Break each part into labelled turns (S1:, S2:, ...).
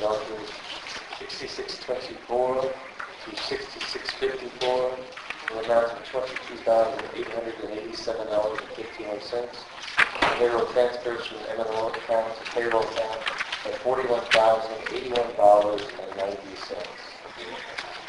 S1: documents 6624 to 6654 in an amount of $22,887.51. And Payroll transfers from the MMO account to payroll account at $41,081.90.
S2: So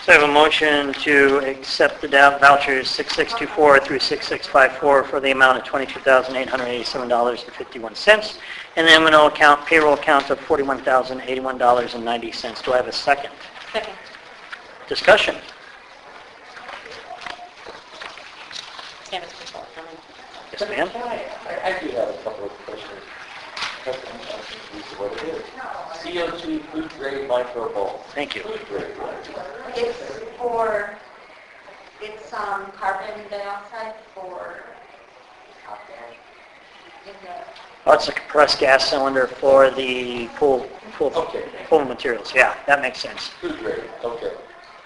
S2: I have a motion to accept the dou- vouchers 6624 through 6654 for the amount of $22,887.51, and the m and O account, payroll account of $41,081.90. Do I have a second?
S3: Second.
S2: Discussion?
S3: Kevin, please call the roll.
S2: Yes, ma'am?
S1: Can I, I I do have a couple of questions. That's an interesting piece of what it is. CO2 food grade micro bowl.
S2: Thank you.
S1: Food grade.
S4: It's for, it's um, carbon dioxide for out there in the,
S2: Oh, it's a compressed gas cylinder for the pool, pool,
S1: Okay.
S2: pool materials. Yeah, that makes sense.
S1: Food grade, okay.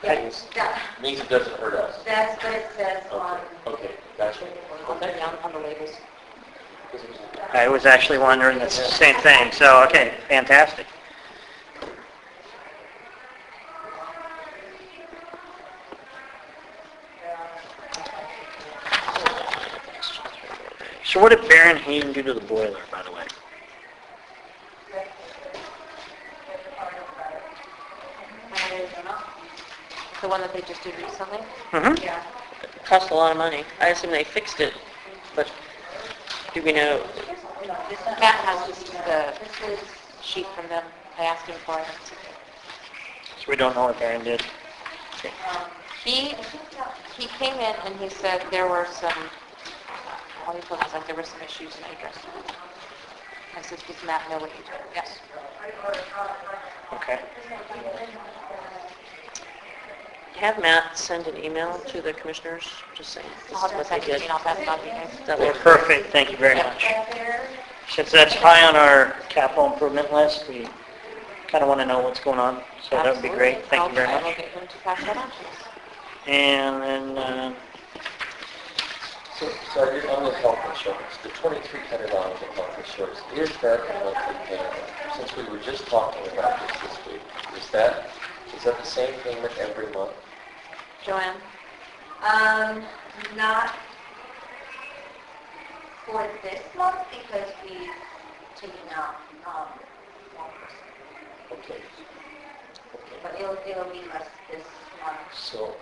S1: Means-
S4: that,
S1: Means it doesn't hurt us.
S4: that's what it says on,
S1: Okay, okay, gotcha.
S3: On the, on- on the labels.
S2: I was actually wondering the same thing, so, okay, fantastic. So what did Baron Hayden do to the boiler, by the way?
S3: I don't know. The one that they just did recently?
S2: Mm-hmm.
S4: yeah.
S3: Cost a lot of money. I assume they fixed it, but do we know? Matt has just the sheet from them. I asked him for it.
S2: So we don't know what Baron did.
S3: He, he came in and he said there were some, uh, all he told us like there were some issues and I addressed them. I said, does Matt know what you did? Yes.
S2: Okay.
S5: Have Matt send an email to the commissioners, just saying this
S3: I'll
S5: is
S3: have to
S5: what they
S3: send you
S5: did.
S3: an email, pass it on to you guys.
S5: That will,
S2: Well, perfect, thank you very much. Since that's high on our capital improvement list, we kind of want to know what's going on, so that would be great.
S3: Absolutely.
S2: Thank you very
S3: I'll- I will
S2: much.
S3: get him to pass that on to us.
S2: And then, uh,
S1: So, so I did, on the health insurance, the twenty-three hundred dollars of health insurance, is that a monthly payment? Since we were just talking about this this week, is that, is that the same payment every month?
S3: Joanne?
S4: Um, not for this month because we taken out, um, one person,
S1: Okay. Okay.
S4: but it'll, it'll be less this month.
S1: So,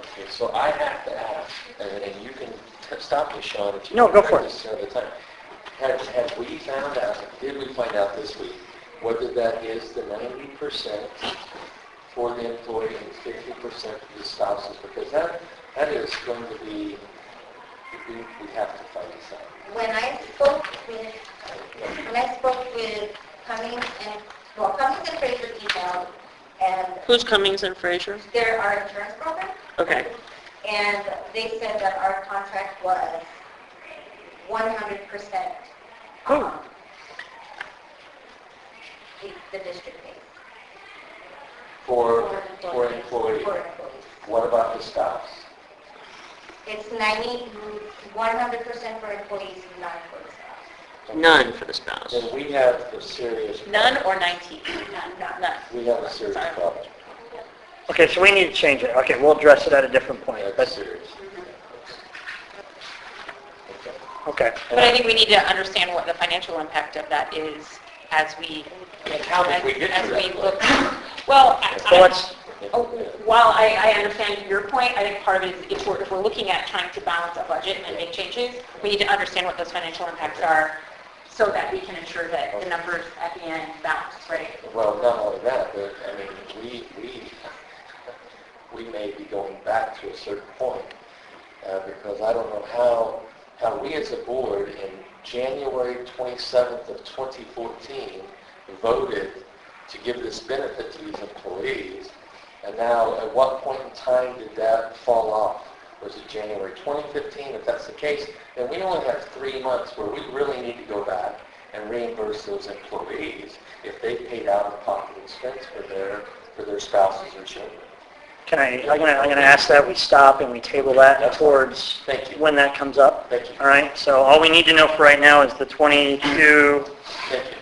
S1: okay, so I have to ask, and, and you can t- stop me, Sean, if you.
S2: No, go for it.
S1: This another time. Have, have we found out, did we find out this week, whether that is the ninety percent for the employee and fifty percent for the spouses? Because that, that is going to be, we, we have to find this out.
S4: When I spoke with When I spoke with Cummings and, well, Cummings and Fraser emailed, and
S5: who's Cummings and Fraser?
S4: they're our insurance broker,
S5: Okay,
S4: and they said that our contract was 100% um, the the district pays.
S1: For,
S4: For
S1: for employee,
S4: For employees.
S1: what about the spouse?
S4: It's 90, 100% for employees, not for the staff.
S5: none for the spouse.
S1: Then we have a serious.
S3: None or 19?
S4: None.
S3: None.
S1: We have a serious problem.
S2: okay, so we need to change it. Okay, we'll address it at a different point.
S1: That's
S2: That's,
S1: serious. Okay.
S2: okay.
S3: But I think we need to understand what the financial impact of that is as we,
S1: And how did we get to
S3: as
S1: that
S3: we
S1: point?
S3: look. Well, I-
S2: So let's,
S3: Oh, While I, I understand your point, I think part of it is if we're, if we're looking at trying to balance a budget and make changes, we need to understand what those financial impacts are so that we can ensure that the numbers at the end balance, right?
S1: Well, not only that, but, I mean, we, we, we may be going back to a certain point, uh, because I don't know how, how we as a board in January 27th of 2014 voted to give this benefit to these employees, and now at what point in time did that fall off? Was it January 2015? If that's the case, then we only have three months where we really need to go back and reimburse those employees if they paid out of pocket expense for their, for their spouses or children.
S2: can I, I'm gonna, I'm gonna ask that we stop and we table that towards
S1: Thank you.
S2: when that comes up.
S1: Thank you.
S2: All right, so all we need to know for right now is the 22,
S1: Thank you.